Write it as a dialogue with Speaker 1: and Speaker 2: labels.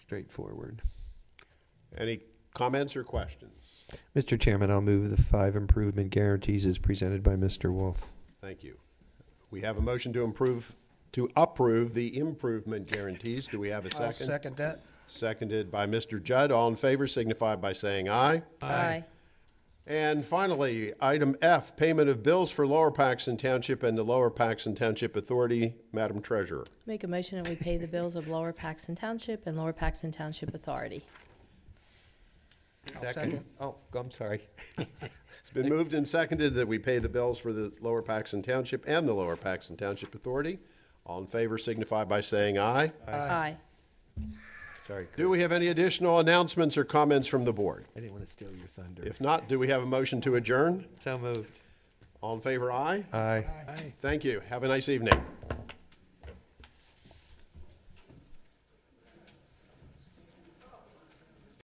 Speaker 1: straightforward.
Speaker 2: Any comments or questions?
Speaker 1: Mr. Chairman, I'll move the five improvement guarantees as presented by Mr. Wolf.
Speaker 2: Thank you. We have a motion to improve, to approve the improvement guarantees. Do we have a 2nd
Speaker 3: I'll second that.
Speaker 2: Seconded by Mr. Judd. All in favor signify by saying aye.
Speaker 4: Aye.
Speaker 2: And finally, item F, payment of bills for Lower Paxton Township and the Lower Paxton Township Authority. Madam Treasurer.
Speaker 4: Make a motion that we pay the bills of Lower Paxton Township and Lower Paxton Township Authority.
Speaker 3: I'll second.
Speaker 1: Oh, I'm sorry.
Speaker 2: It's been moved and seconded that we pay the bills for the Lower Paxton Township and the Lower Paxton Township Authority. All in favor signify by saying aye.
Speaker 4: Aye.
Speaker 1: Sorry,
Speaker 2: Do we have any additional announcements or comments from the board?
Speaker 1: I didn't want to steal your thunder.
Speaker 2: If not, do we have a motion to adjourn?
Speaker 1: So moved.
Speaker 2: All in favor, aye.
Speaker 1: Aye.
Speaker 2: Thank you. Have a nice evening.